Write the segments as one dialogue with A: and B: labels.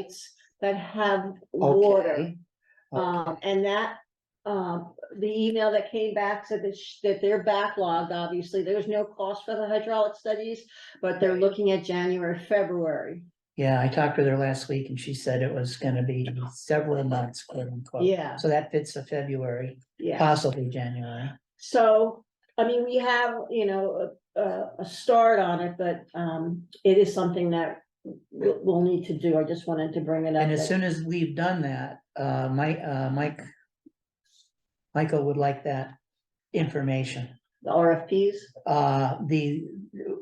A: sites that have water.
B: Okay.
A: Um, and that, um, the email that came back said that, sh- that they're backlogged, obviously, there's no cost for the hydraulic studies, but they're looking at January, February.
B: Oh, Yeah, I talked with her last week and she said it was gonna be several months, quote unquote.
A: Yeah,
B: So that fits the February,
A: yeah.
B: possibly January.
A: So, I mean, we have, you know, a- a, a start on it, but, um, it is something that we'll, we'll need to do. I just wanted to bring it up.
B: And as
A: that-
B: soon as we've done that, uh, Mike, uh, Mike. Michael would like that information,
A: The RFPs,
B: uh, the,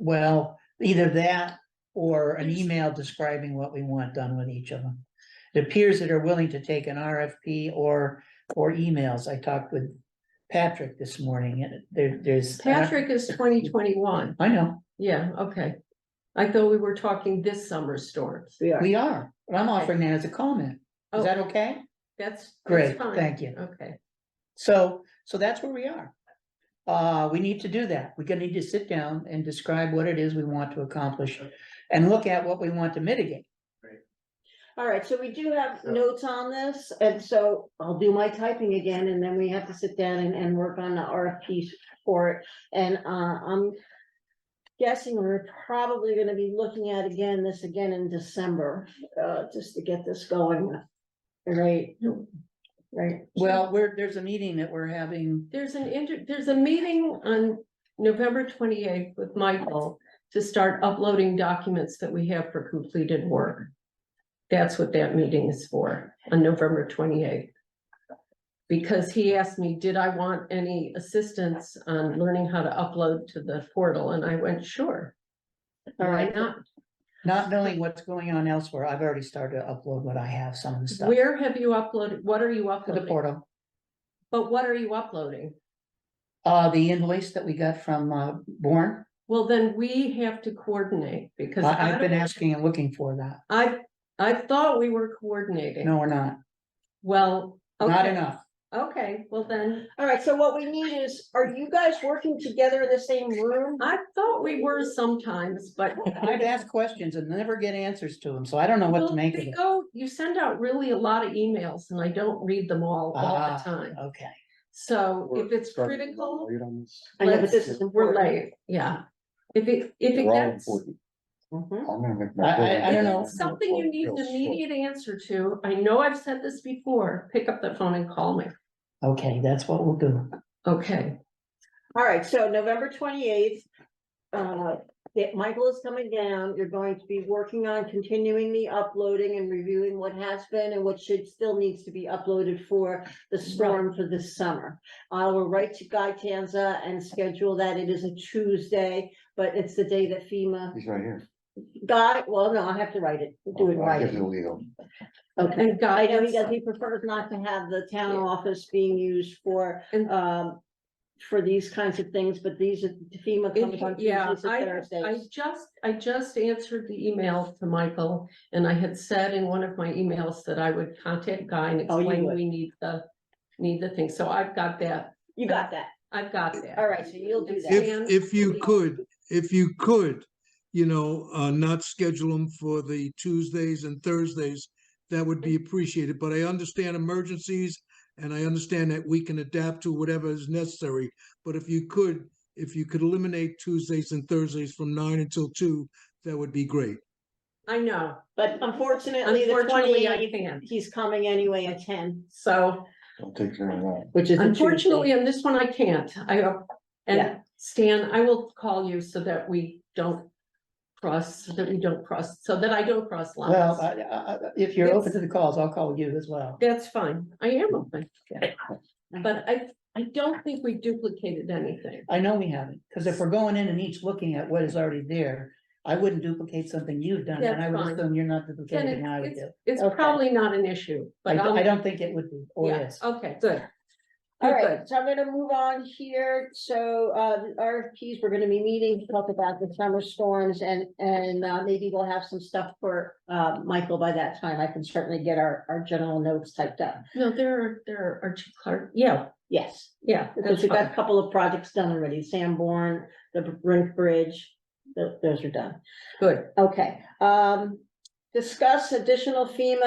B: well, either that. Or an email describing what we want done with each of them. It appears that are willing to take an RFP or, or emails. I talked with Patrick this morning and there, there's.
C: Patrick is twenty twenty-one,
B: I know,
C: yeah, okay. I thought we were talking this summer storms.
A: we are.
B: we are, but I'm offering that as a comment. Is
C: Oh.
B: that okay?
C: That's. that's
B: Great,
C: fine.
B: thank you.
C: Okay,
B: So, so that's where we are. Uh, we need to do that. We're gonna need to sit down and describe what it is we want to accomplish and look at what we want to mitigate.
A: All right, so we do have notes on this, and so I'll do my typing again, and then we have to sit down and, and work on the RFPs for it, and, uh, I'm guessing we're probably gonna be looking at again, this again in December, uh, just to get this going. Right, right,
B: Well, we're, there's a meeting that we're having,
C: there's an inter, there's a meeting on November twenty-eighth with Michael to start uploading documents that we have for completed work. That's what that meeting is for, on November twenty-eighth. Because he asked me, did I want any assistance on learning how to upload to the portal, and I went, sure,
A: all
C: why
A: right,
C: not?
B: not knowing what's going on elsewhere. I've already started to upload what I have, some of the stuff
C: Where have you uploaded, what are you
B: to the
C: uploading?
B: portal.
C: But what are you uploading?
B: Uh, the invoice that we got from, uh, Born,
C: Well, then we have to coordinate because. I
B: I've been
C: don't-
B: asking and looking for that.
C: I, I thought we were coordinating.
B: No, we're not,
C: Well.
B: not
C: okay,
B: enough.
C: Okay, well then,
A: all right, so what we need is, are you guys working together in the same room?
C: I thought we were sometimes, but.
B: I've asked questions and never get answers to them, so I don't know what
C: Well,
B: to make of
C: they
B: it.
C: Go, you send out really a lot of emails and I don't read them all, all
B: Ah.
C: the time.
B: Okay,
C: So
D: We're
C: if it's
D: starting to
C: critical,
D: Late on this.
A: I know, but this
C: let's
A: is important.
C: relay, yeah. If it, if it
D: We're all
C: gets.
D: important.
A: Mhm.
D: I'm gonna make
B: I- I-
D: my. vote.
B: I don't know.
C: It's Something you need an immediate answer to. I know I've said this before, pick up the phone and call me.
B: okay, that's what we'll do.
C: Okay,
A: All right, so November twenty-eighth, uh, that Michael is coming down. You're going to be working on continuing the uploading and reviewing what has been and what should, still needs to be uploaded for the storm for this summer. I will write to Guy Tanza and schedule that. It is a Tuesday, but it's the day that FEMA,
D: He's right here.
A: Guy, well, no, I have to write it, do it
D: I'll give
A: right.
D: you the legal.
A: Okay.
C: and
A: I know he
C: guidance,
A: does, he prefers not to have the town
C: Yeah.
A: office being used for,
C: And-
A: um, for these kinds of things, but these are FEMA comes on
C: And- yeah,
A: Tuesdays and
C: I
A: Thursdays.
C: just, I just answered the email to Michael, and I had said in one of my emails that I would contact Guy and
A: Oh, you
C: explain
A: would.
C: we need the, need the thing, so I've got that,
A: You got that.
C: I've got that.
A: All right, so you'll do that.
C: Dan,
E: If, if you
C: please.
E: could, if you could, you know, uh, not schedule them for the Tuesdays and Thursdays, that would be appreciated, but I understand emergencies and I understand that we can adapt to whatever is necessary. But if you could, if you could eliminate Tuesdays and Thursdays from nine until two, that would be great.
C: I know,
A: But unfortunately, the
C: unfortunately, I
A: twenty,
C: can't,
A: he's coming anyway at ten,
C: so.
D: I'll take care of that.
A: which is. a Tuesday.
C: Unfortunately, on this one, I can't. I, uh,
A: Yeah.
C: and Stan, I will call you so that we don't cross, so that we don't cross, so that I don't cross
B: Well,
C: lines.
B: I, I, I- if you're open
C: It's-
B: to the calls, I'll call you as well.
C: That's fine. I am open.
B: Yeah.
C: But I, I don't think we duplicated anything.
B: I know we haven't, because if we're going in and each looking at what is already there, I wouldn't duplicate something you've done, and
C: That's
B: I would
C: fine.
B: assume you're not
C: Then
B: duplicating what I would
C: it's,
B: do.
C: it's- it's
B: Okay.
C: probably not an issue,
B: I,
C: but.
B: d-
C: I'll-
B: I don't think it would be, or
C: Yeah,
B: is.
C: okay, good.
A: All
C: Good,
A: right,
C: good.
A: so I'm gonna move on here. So, uh, the RFPs, we're gonna be meeting, to talk about the summer storms and, and, uh, maybe we'll have some stuff for, uh, Michael by that time. I can certainly get our, our general notes typed up.
C: No, there are, there are Archie Clark, yeah,
A: Yes,
C: yeah.
A: because
C: that's
A: we've got a
C: fine.
A: couple of projects done already, Sanborn, the Brink Bridge, tho- those are done.
C: Good.
A: Okay, um, discuss additional FEMA